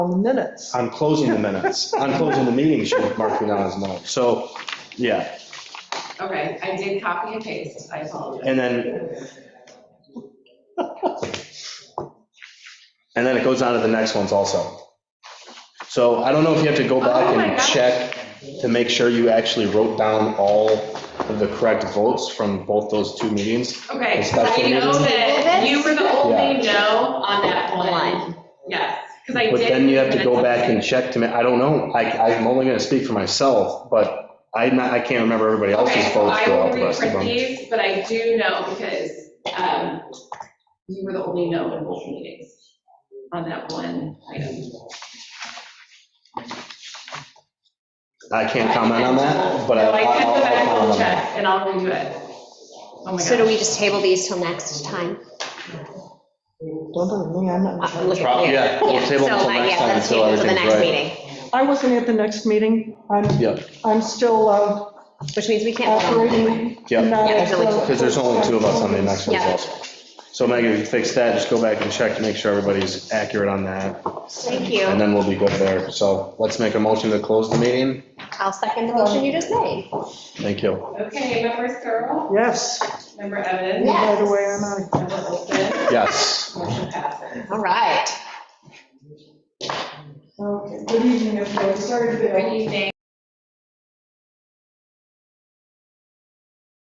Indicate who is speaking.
Speaker 1: on the minutes.
Speaker 2: I'm closing the minutes, I'm closing the meeting, she marked me down as no. So, yeah,
Speaker 3: Okay, I did copy and paste, I apologize.
Speaker 2: and then, and then it goes on to the next ones also. So I don't know if you have to go back
Speaker 3: Oh my
Speaker 2: and
Speaker 3: gosh.
Speaker 2: check to make sure you actually wrote down all of the correct votes from both those two meetings.
Speaker 3: Okay,
Speaker 2: It's got
Speaker 3: I know
Speaker 2: some-
Speaker 3: that you were the only no on that
Speaker 4: One.
Speaker 3: one. Yes, because I did.
Speaker 2: But then you have to go back and
Speaker 3: check.
Speaker 2: check to, ma- I don't know, I, I'm only gonna speak for myself, but I'm not, I can't remember everybody else's
Speaker 3: Okay,
Speaker 2: votes
Speaker 3: I
Speaker 2: for all
Speaker 3: will
Speaker 2: the rest of
Speaker 3: reprint
Speaker 2: them.
Speaker 3: these, but I do know because um, you were the only no in both meetings on that one item.
Speaker 2: I can't comment on that, but I-
Speaker 3: No, I did
Speaker 2: I'll,
Speaker 3: go back
Speaker 2: I'll comment
Speaker 3: and
Speaker 2: on that.
Speaker 3: check, and I'll redo it. Oh my
Speaker 4: So do
Speaker 3: gosh.
Speaker 4: we just table these till next time?
Speaker 1: Don't bother me, I'm not.
Speaker 4: Uh, look at-
Speaker 2: Prob- yeah, we'll table
Speaker 4: so,
Speaker 2: until
Speaker 4: uh,
Speaker 2: next
Speaker 4: yeah,
Speaker 2: time
Speaker 4: let's
Speaker 2: until
Speaker 4: table till the
Speaker 2: everything's
Speaker 4: next
Speaker 2: right.
Speaker 4: meeting,
Speaker 1: I wasn't at the next meeting. I'm,
Speaker 2: Yeah.
Speaker 1: I'm still uh,
Speaker 4: Which means we can't. vote on it.
Speaker 1: operating.
Speaker 2: Yeah.
Speaker 1: not
Speaker 4: Yeah,
Speaker 1: as
Speaker 4: there's only
Speaker 1: a-
Speaker 4: two.
Speaker 2: Because there's only two of us on the next ones
Speaker 4: Yeah.
Speaker 2: also. So Megan, if you fix that, just go back and check to make sure everybody's accurate on that,
Speaker 4: Thank
Speaker 2: and
Speaker 4: you.
Speaker 2: then we'll be good there. So let's make a motion to close the meeting.
Speaker 4: I'll second the motion you just made.
Speaker 2: Thank you.
Speaker 3: Okay, member Searle,
Speaker 1: Yes,
Speaker 3: member Evans.
Speaker 4: Yeah.
Speaker 1: by the way, I'm out.
Speaker 3: Member Olson,
Speaker 2: Yes.
Speaker 3: motion passes.
Speaker 4: All right.
Speaker 1: Okay, good evening, everybody. Sorry to be.
Speaker 3: Good evening.